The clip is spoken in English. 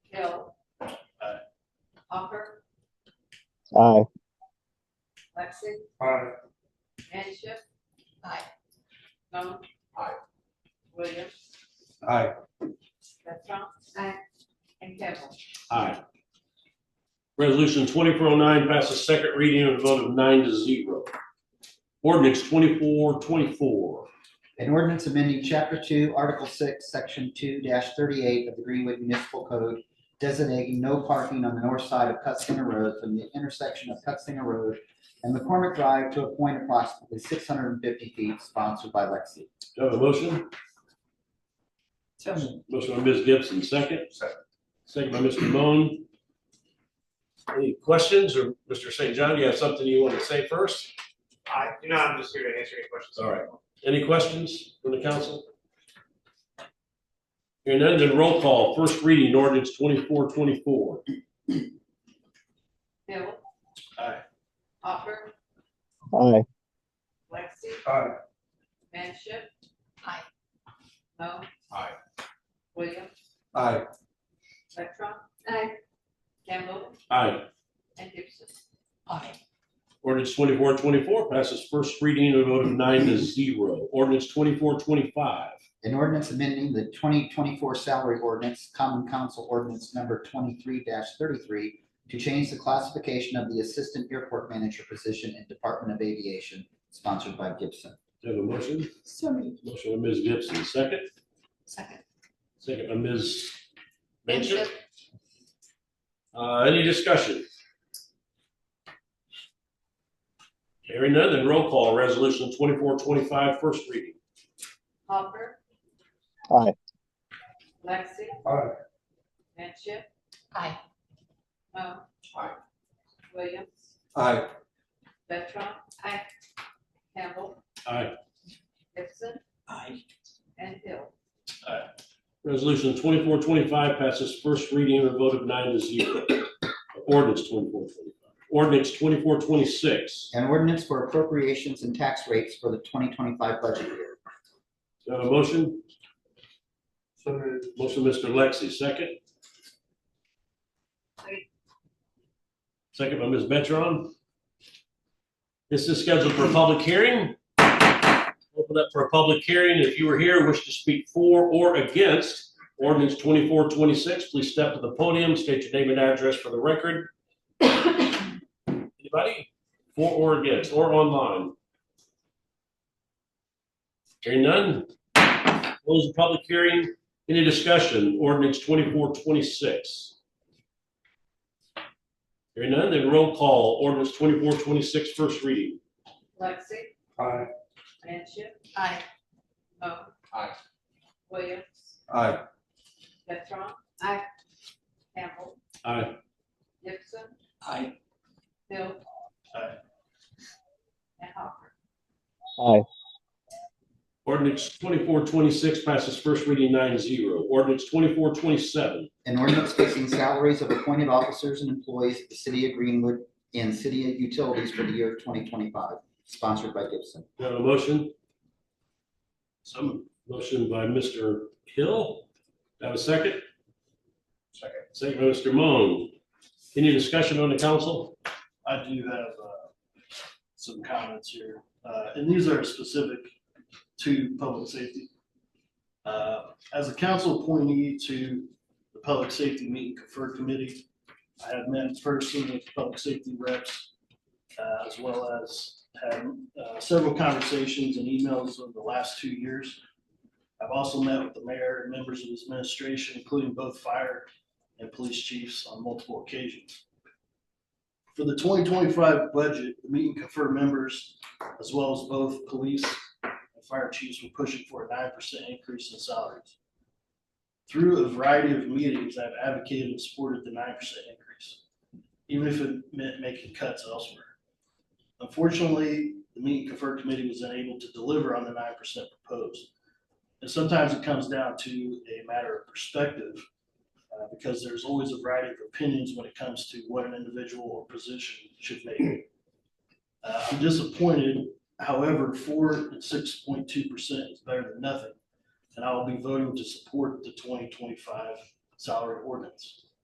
Aye. Lexi, Aye. Manship. Aye. Cone. Aye. Williams, Aye. Betron. Aye. And Campbell. Aye. Resolution twenty-four oh nine passes second reading and a vote of nine to zero. Ordinance twenty-four twenty-four. An ordinance amending Chapter Two, Article Six, Section two thirty-eight of the Greenwood Municipal Code designating no parking on the north side of Cutsinger Road from the intersection of Cutsinger Road and McCormick Drive to a point approximately six hundred and fifty feet sponsored by Lexi. Do I have a motion? Motion by Ms. Gibson, second. Second. Second by Mr. Moan. Any questions or Mr. St. John, do you have something you want to say first? I, you know, I'm just here to answer any questions. All right. Any questions from the council? Hearing none, then roll call. First reading ordinance twenty-four twenty-four. Bill. Aye. Hopper, Aye. Lexi, Aye. Manship. Aye. Cone. Aye. Williams, Aye. Betron. Aye. Campbell Aye. and Gibson. Aye. Ordinance twenty-four twenty-four passes first reading and a vote of nine to zero. Ordinance twenty-four twenty-five. An ordinance amending the twenty twenty-four salary ordinance, common council ordinance number twenty-three thirty-three to change the classification of the assistant airport manager position in Department of Aviation, sponsored by Gibson. Do you have a motion? So moved. Motion by Ms. Gibson, second. Second. Second by Ms. Manship. Uh, any discussion? Hearing none, then roll call. Resolution twenty-four twenty-five, first reading. Hopper. Aye. Lexi, Aye. Manship. Aye. Cone. Aye. Williams, Aye. Betron. Aye. Campbell, Aye. Gibson. Aye. And Hill. Resolution twenty-four twenty-five passes first reading and a vote of nine to zero. Ordinance twenty-four twenty-five. Ordinance twenty-four twenty-six. An ordinance for appropriations and tax rates for the twenty twenty-five budget year. Do you have a motion? So moved. Motion, Mr. Lexi, second. Second. Second by Ms. Betron. This is scheduled for a public hearing. Open up for a public hearing. If you are here, and wish to speak for or against ordinance twenty-four twenty-six, please step to the podium, state your name and address for the record. Anybody? For or against, or online? Hearing none. Close the public hearing. Any discussion? Ordinance twenty-four twenty-six. Hearing none, then roll call. Ordinance twenty-four twenty-six, first reading. Lexi. Aye. Manship. Aye. Mo. Aye. Williams. Aye. Betron. Aye. Campbell. Aye. Gibson. Aye. Hill. Aye. And Hopper. Aye. Ordinance twenty-four twenty-six passes first reading nine zero. Ordinance twenty-four twenty-seven. An ordinance fixing salaries of appointed officers and employees of the city of Greenwood and city utilities for the year twenty twenty-five, sponsored by Gibson. Do I have a motion? Some motion by Mr. Hill. Do I Have a second? Second. Second by Mr. Moan. Any discussion on the council? I do have uh, some comments here, uh, and these are specific to public safety. Uh, As a council appointee to the Public Safety Meet and Confer Committee, I have met personally with public safety reps, uh, as well as had uh, several conversations and emails over the last two years. I've also met with the mayor and members of his administration, including both fire and police chiefs on multiple occasions for the twenty twenty-five budget, the meeting confer members, as well as both police and fire chiefs were pushing for a nine percent increase in salaries. Through a variety of meetings, I've advocated and supported the nine percent increase, even if it meant making cuts elsewhere. Unfortunately, the meeting confer committee was unable to deliver on the nine percent proposed. And sometimes it comes down to a matter of perspective uh, because there's always a variety of opinions when it comes to what an individual or position should make. Uh, I'm disappointed, however, four and six point two percent is better than nothing, and I will be voting to support the twenty twenty-five salary ordinance.